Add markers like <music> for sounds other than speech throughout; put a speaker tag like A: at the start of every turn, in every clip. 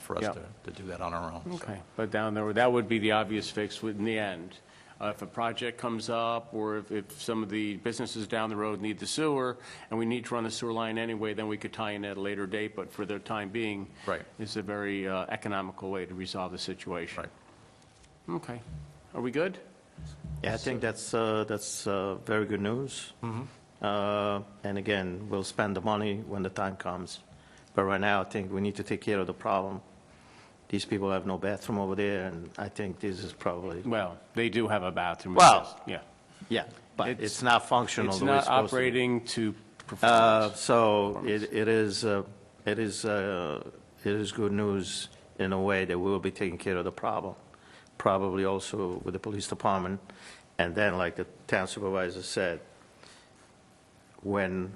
A: for us
B: Yeah.
A: to, to do that on our own. so.
B: Okay, but down there, that would be the obvious fix in the end. Uh, If a project comes up, or if, if some of the businesses down the road need the sewer, and we need to run the sewer line anyway, then we could tie in at a later date, but for the time being.
A: Right.
B: It's a very uh, economical way to resolve the situation.
A: Right.
B: Okay, are we good?
C: Yeah, I think that's, uh, that's uh, very good news.
B: Mm-hmm.
C: Uh, And again, we'll spend the money when the time comes. But right now, I think we need to take care of the problem. These people have no bathroom over there, and I think this is probably,
B: Well, they do have a bathroom.
C: Well,
B: yes, Yeah.
C: yeah, but
B: It's-
C: it's not functional
B: It's
C: the way it's
B: not
C: supposed to be.
B: operating to
C: Uh,
B: performance.
C: So it it is, uh, it is, uh, it is good news in a way that we will be taking care of the problem, probably also with the police department. And then, like the town supervisor said, when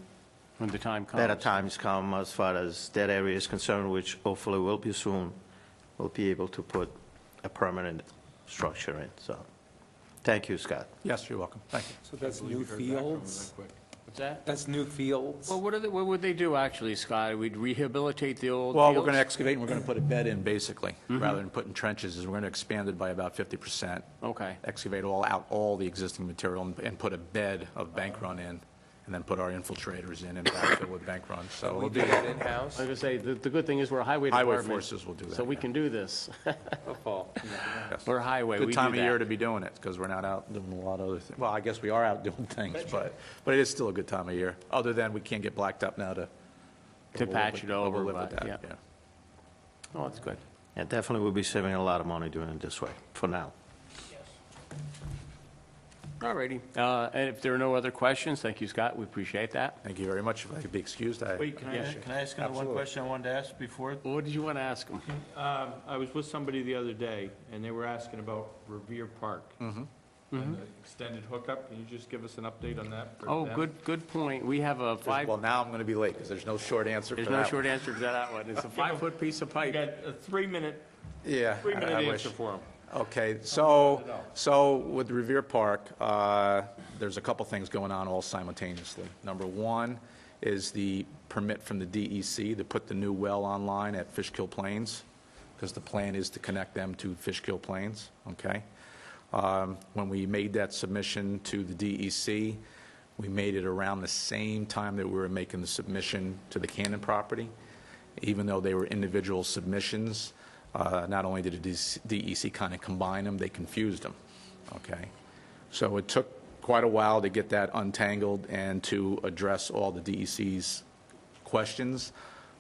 B: When the time comes.
C: better times come as far as that area is concerned, which hopefully will be soon, we'll be able to put a permanent structure in, so. Thank you, Scott.
A: Yes, you're welcome. Thank you.
D: So that's new fields?
B: What's that?
D: That's new fields?
B: Well, what are they, what would they do actually, Scott? We'd rehabilitate the Mm-hmm. old
A: Well, we're going to
B: fields?
A: excavate and we're going to put a bed in, basically, rather than putting trenches, is we're going to expand it by about 50%.
B: Okay.
A: Excavate all, out all the existing material and- and put a bed of bank run in, and then put our infiltrators in and backfill with bank run. So we'll
D: We
A: do
D: do
A: that.
D: that in-house?
B: Like I say, the, the good thing is we're a highway
A: Highway
B: department.
A: forces will do that,
B: So we
A: yeah.
B: can do this. <laughs>
D: Paul.
A: Yes.
B: We're highway, we
A: Good
B: do
A: time of year
B: that.
A: to be doing it, because we're not out doing a lot of other things. Well, I guess we are out <laughs> doing things, but, but it is still a good time of year, other than we can't get blacked up now to.
B: To
A: we'll
B: patch
A: live
B: it
A: with-
B: over,
A: we'll live with
B: but,
A: that,
B: yeah. Oh, that's good.
C: Yeah, definitely we'll be saving a lot of money doing it this way, for now.
B: All righty. Uh, and if there are no other questions, thank you, Scott. We appreciate that.
A: Thank you very much. If I could be excused, I.
E: Wait, can I,
B: Yeah.
E: ask-
C: Can I ask another one question I wanted to ask before?
B: What did you want to ask him?
E: um, I was with somebody the other day, and they were asking about Revere Park.
A: Mm-hmm.
E: And the Extended hookup, can you just give us an update on that? for
B: Mm-hmm. Oh,
E: them?
B: good, good point. We have a five,
A: Well, now I'm going to be late, because there's no short answer for
B: there's
A: that.
B: no
A: one.
B: short answer to that one.
E: <laughs>
B: It's a five-foot piece of
E: You
B: pipe.
E: got a three-minute,
A: Yeah.
E: three-minute
A: I- I
E: answer
A: wish.
E: for them.
A: Okay, so, so with Revere Park, uh, there's a couple things going on all simultaneously. Number one is the permit from the DEC to put the new well online at Fishkill Plains, because the plan is to connect them to Fishkill Plains, okay? Um, When we made that submission to the DEC, we made it around the same time that we were making the submission to the Cannon property even though they were individual submissions, uh, not only did the DEC kind of E combine them, they confused them, okay? So it took quite a while to get that untangled and to address all the E DEC's questions.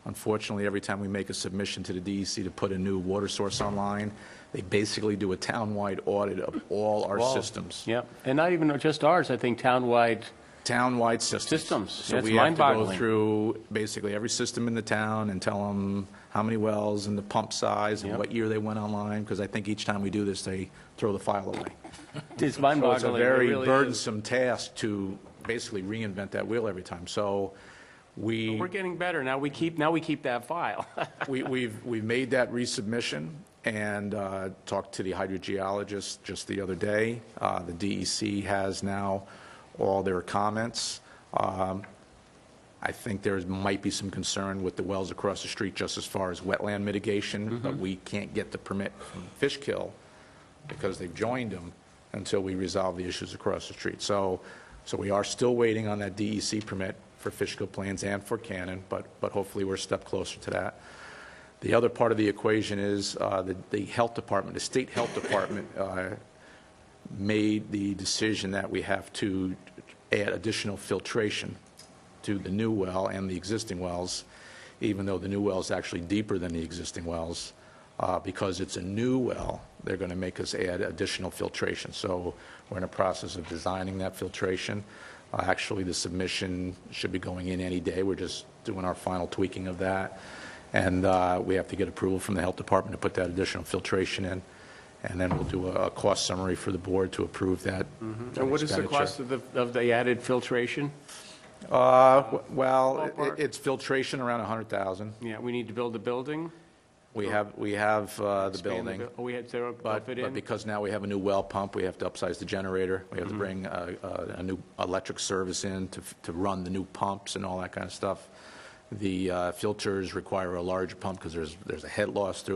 A: Unfortunately, every time we make a submission to the DEC to put a new water source online, they basically do a townwide audit of all our systems.
B: Yep. And not even just ours, I think townwide.
A: Townwide systems.
B: Systems.
A: So
B: That's
A: we have to go
B: mind-boggling.
A: through basically every system in the town and tell them how many wells and the pump size and
B: Yep.
A: what year they went online, because I think each time we do this, they throw the file away.
B: It's
A: So it's a
B: mind-boggling. It
A: very
B: really is.
A: burdensome task to basically reinvent that wheel every time. So we.
B: We're getting better. Now we keep, now we keep that file. <laughs>
A: We- We've, we've made that resubmission and uh, talked to the hydrogeologist just the other day. Uh, The DEC has now all their comments. Um, I think there might be some concern with the wells across the street just as far as wetland mitigation, but we can't get the permit from Fishkill because they've joined them until we resolve the issues across the street. So, so we are still waiting on that DEC permit for Fishkill Plains and for Cannon, but, but hopefully we're a step closer to that. The other part of the equation is uh, the, the health department, the state health department uh, made the decision that we have to add additional filtration to the new well and the existing wells, even though the new well is actually deeper than the existing wells. Uh, Because it's a new well, they're going to make us add additional filtration. So we're in the process of designing that filtration. Uh, Actually, the submission should be going in any day. We're just doing our final tweaking of that. And uh, we have to get approval from the Health Department to put that additional filtration in. And then we'll do a a cost summary for the board to approve that.
B: Mm-hmm. And what is the
A: expenditure.
B: cost of the, of the added filtration?
A: Uh, w- Well, it-
B: Ballpark.
A: it's filtration around 100,000.
B: Yeah, we need to build a building.
A: We have, we have uh, the
B: Oh. expand
A: building,
B: buil- Oh, we had zero,
A: but,
B: fit
A: but
B: in.
A: because now we have a new well pump, we have to upsize the generator. We have
B: Mm-hmm.
A: to bring uh, uh, a new electric service in to, f- to run the new pumps and all that kind of stuff. The uh, filters require a larger pump because there's, there's a head loss through